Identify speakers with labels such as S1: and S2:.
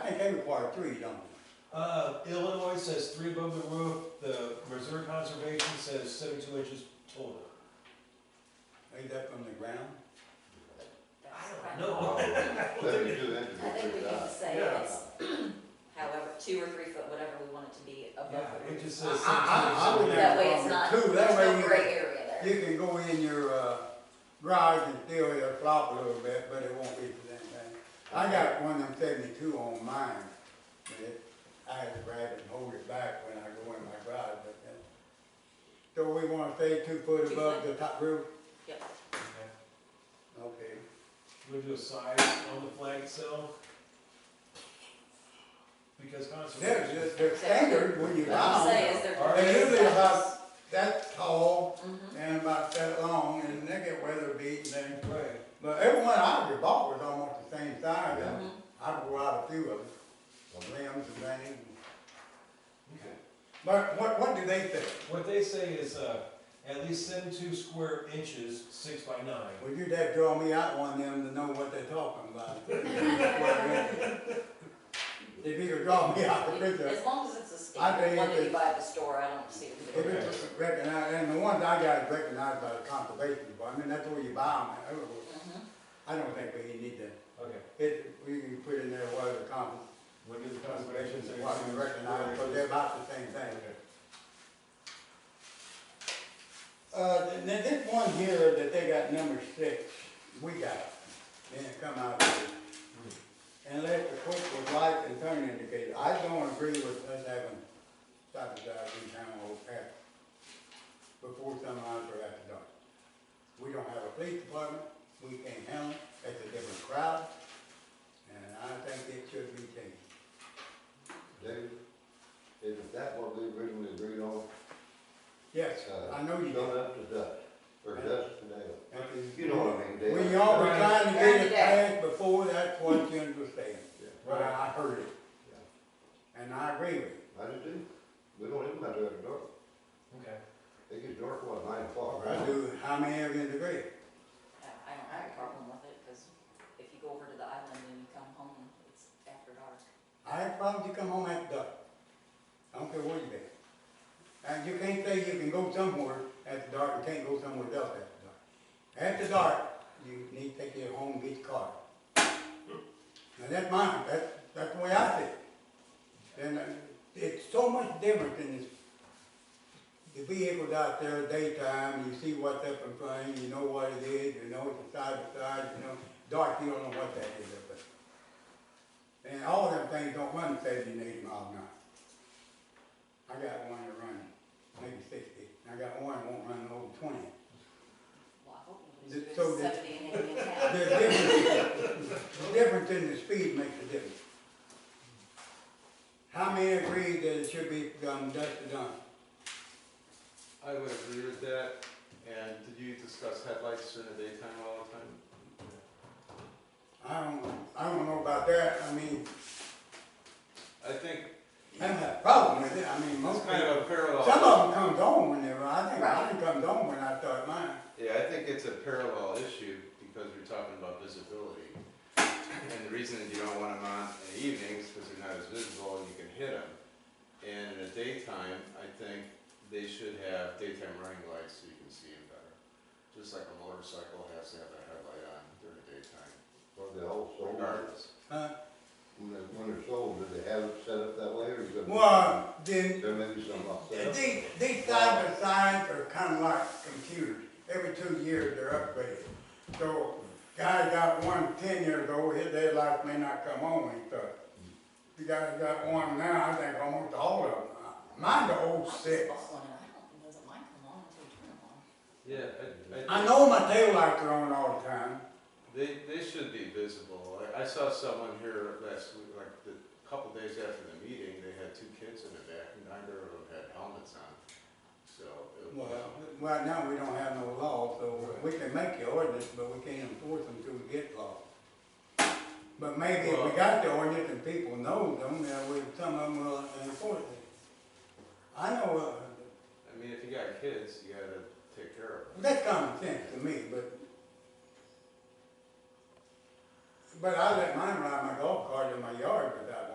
S1: think they require three, don't they?
S2: Uh, Illinois says three above the roof, the Missouri Conservation says seventy-two inches total.
S1: Ain't that from the ground?
S2: I don't know.
S3: Let me do that
S4: I think we
S3: to
S4: need
S3: go
S4: to
S3: through
S4: say
S2: Yeah.
S4: it's however, two or three foot, whatever we want it to be above
S2: Yeah, it
S4: the roof.
S2: just says
S1: I- I- I
S2: seventy-two
S1: would
S2: inches.
S4: That way it's not, there's
S1: Two, that way
S4: no
S1: you-
S4: gray area there.
S1: You can go in your, uh, garage and fill your flop a little bit, but it won't be for that thing. I got one of them seventy-two on mine, but it, I had to grab it and hold it back when I go in my garage, but then. So we wanna stay two foot
S4: Two
S1: above
S4: foot?
S1: the top roof?
S4: Yep.
S2: Okay.
S1: Okay.
S2: We'll do a size on the flag itself. Because
S1: They're
S2: conservation.
S1: just, they're standard when you
S4: What I'm
S1: buy
S4: saying
S1: them.
S4: is
S2: All
S4: they're.
S2: right.
S1: They're usually about that tall
S4: Mhm.
S1: and about that long, and they get weather beaten and
S2: Right.
S1: But everyone I ever bought was almost the same size.
S3: Yeah.
S1: I- I bought a few of them, the limbs and things.
S2: Okay.
S1: But what, what do they think?
S2: What they say is, uh, at least seventy-two square inches, six by nine.
S1: Would you dad draw me out one of them to know what they're talking about? If you could draw me out the picture,
S4: As long as it's a
S1: I
S4: standard
S1: think
S4: one that you
S1: it's-
S4: buy at the store, I don't see
S1: if
S4: it.
S1: it's recognized, and the ones I got is recognized by the conservation department, that's where you buy them. I don't think we need to,
S2: Okay.
S1: it, we can put in there what the con-
S2: What does the conservation
S1: conservation
S2: say?
S1: department recognized, but they're about the same thing.
S2: Okay.
S1: Uh, th- now this one here that they got number six, we got, it. then it come out of it. Unless the quick with light and turn indicator, I don't agree with us having stop and drive in town or after, before sunrise or after dark. We don't have a police department, we can't handle it, that's a different crowd, and I think it should be changed.
S3: that. David, is that what we originally agreed on?
S1: Yes,
S3: Uh,
S1: I know you
S3: Going
S1: don't.
S3: up to dusk, or dusk to dawn. You know what I mean, Dale.
S1: When y'all were
S2: Right.
S1: trying to get it
S4: Right.
S1: passed before, that's what you understand.
S3: Yeah.
S1: Well, I heard it. And I agree with you.
S3: I do too. We don't even matter after dark.
S2: Okay.
S3: It gets dark, what, nine o'clock?
S1: I do, how many of you agree?
S4: I don't have a problem with it, cause if you go over to the island and you come home, it's after dark.
S1: I have problems, you come home after dark. I don't care where you been. And you can't say you can go somewhere after dark and can't go somewhere else after dark. After dark, you need to take your home, and get your car. Now that's mine, that's, that's the way I see it. And uh, it's so much different than this. The vehicles out there daytime, you see what's up in front, of you you know what it is, you know it's a side to side, you know, dark, you don't know what that is up there. And all them things don't run seventy and eighty miles an hour. I got one that run maybe sixty, and I got one that won't run over twenty.
S4: Well, I hope
S1: Th-
S4: nobody's
S1: so
S4: doing
S1: did-
S4: seventy and eighty in town.
S1: The difference, the difference in the speed makes a difference. How many agree that it should be done dusk to dawn?
S5: I would agree with that, and did you discuss headlights during the daytime all the time?
S1: I don't, I don't know about that, I mean,
S5: I think
S1: I don't have a problem with it, I mean, most
S5: it's kind
S1: people.
S5: of a parallel.
S1: Some of them comes on whenever, I think mine comes on when I start mine.
S5: Yeah, I think it's a parallel issue because we're talking about visibility. And the reason that you don't want them on in the evenings because they're not as visible and you can hit them. And in the daytime, I think they should have daytime running lights so you can see them better. Just like a motorcycle has to have a headlight on during the daytime,
S3: Or they all sold,
S5: regardless.
S1: Huh?
S3: when they- when they're sold, do they have it set up that way or is it?
S1: Well, then
S3: There may be some upset.
S1: These, these side by sides are kind of like computers. Every two years, they're upgraded. So guy got one ten years old, his daylight may not come on when he starts. You guys got one now, I think almost all of them. Mine's the
S4: I
S1: old
S4: just
S1: six.
S4: bought one and I don't, doesn't mine come on until you turn it on?
S5: Yeah, I,
S1: I know my taillights are on all the time.
S5: They, they should be visible. I, I saw someone here last week, like the couple days after the meeting, they had two kids in the back, and neither of them had helmets on. So, it
S1: Well,
S5: was,
S1: right now, we don't have no law, so we can make the ordinance, but we can't enforce them till we get law. But maybe if we got the ordinance and people know them, then we, some of them will enforce it. I know, uh,
S5: I mean, if you got kids, you gotta take care of them.
S1: that's common sense to me, but but I let mine ride my golf cart in my yard, but